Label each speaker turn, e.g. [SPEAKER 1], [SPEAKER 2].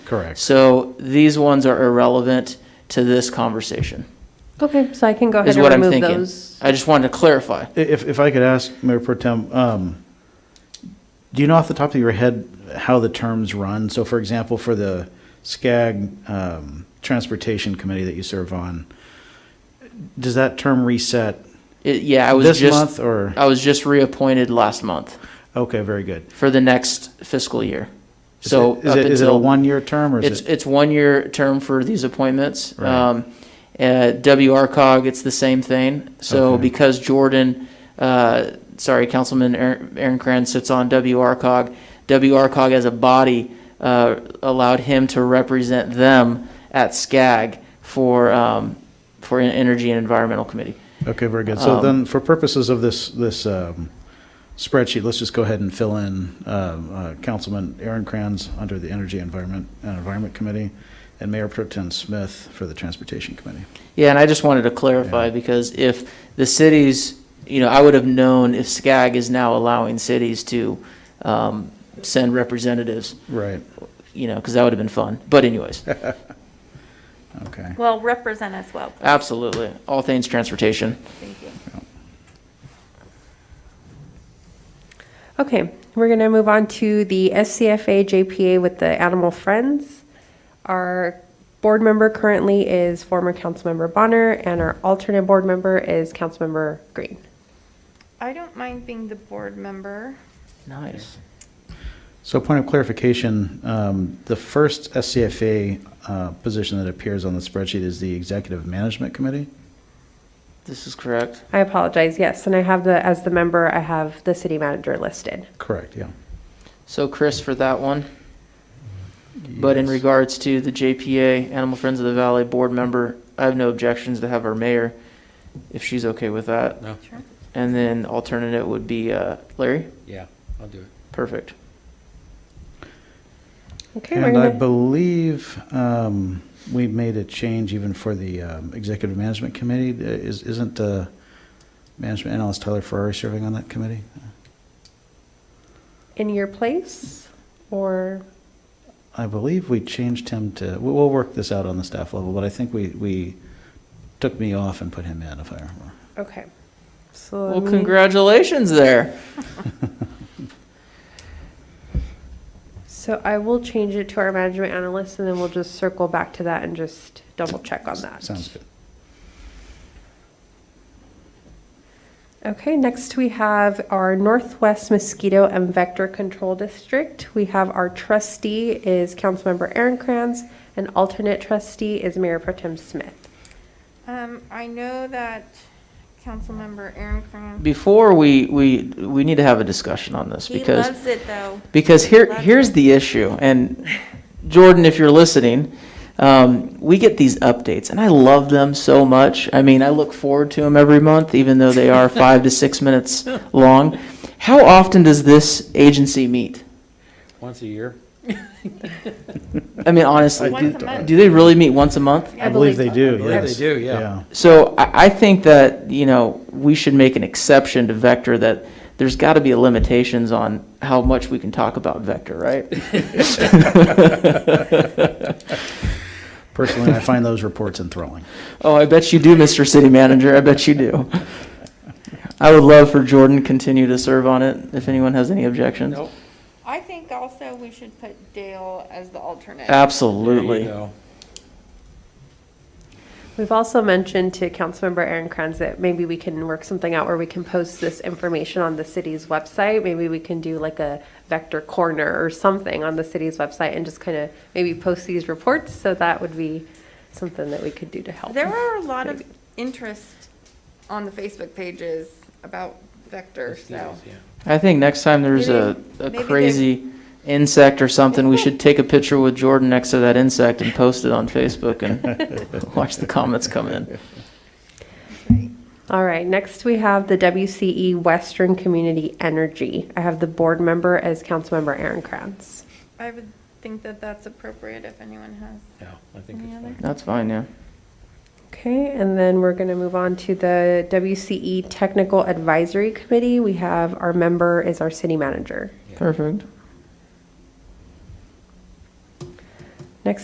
[SPEAKER 1] Correct.
[SPEAKER 2] So these ones are irrelevant to this conversation,
[SPEAKER 3] Okay, so I can go ahead
[SPEAKER 2] is
[SPEAKER 3] and
[SPEAKER 2] what I'm
[SPEAKER 3] remove
[SPEAKER 2] thinking.
[SPEAKER 3] those.
[SPEAKER 2] I just wanted to clarify.
[SPEAKER 1] If, if I could ask Mayor Protem, um, do you know off the top of your head how the terms run? So for example, for the SCAG, um, Transportation Committee that you serve on, does that term reset
[SPEAKER 2] It- Yeah, I was
[SPEAKER 1] this
[SPEAKER 2] just,
[SPEAKER 1] month or?
[SPEAKER 2] I was just reappointed last month
[SPEAKER 1] Okay, very good.
[SPEAKER 2] for the next fiscal year.
[SPEAKER 1] Is
[SPEAKER 2] So
[SPEAKER 1] it- Is
[SPEAKER 2] up
[SPEAKER 1] it, is it a
[SPEAKER 2] until-
[SPEAKER 1] one-year term or
[SPEAKER 2] It's,
[SPEAKER 1] is it?
[SPEAKER 2] it's one-year term for these appointments.
[SPEAKER 1] Right.
[SPEAKER 2] Um, At WRCOG, it's the same thing. So
[SPEAKER 1] Okay.
[SPEAKER 2] because Jordan, uh, sorry, Councilman Aaron Aaron Cran sits on WRCOG, WRCOG as a body uh, allowed him to represent them at SCAG for, um, for en- Energy and Environmental Committee.
[SPEAKER 1] Okay, very good. So
[SPEAKER 2] um,
[SPEAKER 1] then for purposes of this, this, um, spreadsheet, let's just go ahead and fill in, um, uh, Councilman Aaron Kranz under the Energy Environment, and Environment Committee and Mayor Pro Tem Smith for the Transportation Committee.
[SPEAKER 2] Yeah, and I just wanted to clarify,
[SPEAKER 1] Yeah.
[SPEAKER 2] because if the cities, you know, I would have known if SCAG is now allowing cities to um, send representatives,
[SPEAKER 1] Right,
[SPEAKER 2] you know, because that would have been fun. But anyways,
[SPEAKER 1] okay.
[SPEAKER 4] Well, represent us well, please.
[SPEAKER 2] absolutely, all things transportation.
[SPEAKER 4] Thank you.
[SPEAKER 3] Okay, we're going to move on to the SCFA JPA with the Animal Friends. Our board member currently is former Councilmember Bonner, and our alternate board member is Councilmember Green.
[SPEAKER 4] I don't mind being the board member.
[SPEAKER 2] Nice.
[SPEAKER 1] So point of clarification, um, the first SCFA, uh, position that appears on the spreadsheet is the Executive Management Committee?
[SPEAKER 2] This is correct.
[SPEAKER 3] I apologize, yes, and I have the, as the member, I have the city manager listed.
[SPEAKER 1] Correct, yeah.
[SPEAKER 2] So Chris for that one. But in
[SPEAKER 1] Yes.
[SPEAKER 2] regards to the JPA, Animal Friends of the Valley Board member, I have no objections to have our mayor, if she's okay with that.
[SPEAKER 5] No,
[SPEAKER 4] Sure.
[SPEAKER 2] And then alternate would be uh, Larry.
[SPEAKER 5] yeah, I'll do it.
[SPEAKER 2] Perfect.
[SPEAKER 3] Okay, we're
[SPEAKER 1] And I
[SPEAKER 3] going to,
[SPEAKER 1] believe um, we made a change even for the um, Executive Management Committee. Uh, is- Isn't the management analyst Tyler Ferrari serving on that committee?
[SPEAKER 3] in your place, or,
[SPEAKER 1] I believe we changed him to, we- we'll work this out on the staff level, but I think we, we took me off and put him in, if I remember.
[SPEAKER 3] okay. So
[SPEAKER 2] Well,
[SPEAKER 3] let me-
[SPEAKER 2] congratulations there.
[SPEAKER 3] So I will change it to our management analyst, and then we'll just circle back to that and just double check on that.
[SPEAKER 1] Sounds good.
[SPEAKER 3] Okay, next we have our Northwest Mosquito and Vector Control District. We have our trustee is Councilmember Aaron Kranz, and alternate trustee is Mayor Pro Tem Smith.
[SPEAKER 4] Um, I know that Councilmember Aaron Cran,
[SPEAKER 2] Before we, we, we need to have a discussion on this
[SPEAKER 4] he
[SPEAKER 2] because.
[SPEAKER 4] loves it, though.
[SPEAKER 2] Because here,
[SPEAKER 4] Lots
[SPEAKER 2] here's the issue, and Jordan, if you're listening, um, we get these updates, and I love them so much. I mean, I look forward to them every month, even though they are five to six minutes long. How often does this agency meet?
[SPEAKER 5] Once a year?
[SPEAKER 2] I mean, honestly,
[SPEAKER 4] Once
[SPEAKER 1] did-
[SPEAKER 4] a month.
[SPEAKER 2] do they really meet once a month?
[SPEAKER 3] I believe
[SPEAKER 1] they
[SPEAKER 3] so.
[SPEAKER 1] do, yes.
[SPEAKER 5] believe they do, yeah.
[SPEAKER 2] So I, I think that, you know, we should make an exception to Vector, that there's got to be limitations on how much we can talk about Vector, right?
[SPEAKER 1] Personally, I find those reports enthralling.
[SPEAKER 2] Oh, I bet you do, Mr. City Manager. I bet you do. I would love for Jordan to continue to serve on it if anyone has any objections.
[SPEAKER 5] Nope.
[SPEAKER 4] I think also we should put Dale as the alternate.
[SPEAKER 5] There you
[SPEAKER 2] Absolutely.
[SPEAKER 5] go.
[SPEAKER 3] We've also mentioned to Councilmember Aaron Kranz that maybe we can work something out where we can post this information on the city's website. Maybe we can do like a vector corner or something on the city's website and just kind of maybe post these reports. So that would be something that we could do to help.
[SPEAKER 4] There are a lot of interest on the Facebook pages about Vector, so.
[SPEAKER 5] Yeah.
[SPEAKER 2] I think next time there's a, a
[SPEAKER 4] Maybe- maybe
[SPEAKER 2] crazy insect or something, we should take a picture with Jordan next to that insect and post it on Facebook and watch the comments come in.
[SPEAKER 3] All right, next we have the WCE Western Community Energy. I have the board member as Councilmember Aaron Kranz.
[SPEAKER 4] I would think that that's appropriate if anyone has.
[SPEAKER 5] Yeah, I think
[SPEAKER 4] Any
[SPEAKER 5] it's
[SPEAKER 4] other?
[SPEAKER 5] fine.
[SPEAKER 2] That's fine, yeah.
[SPEAKER 3] Okay, and then we're going to move on to the E WCE Technical Advisory Committee. We have our member is our city manager.
[SPEAKER 2] Perfect.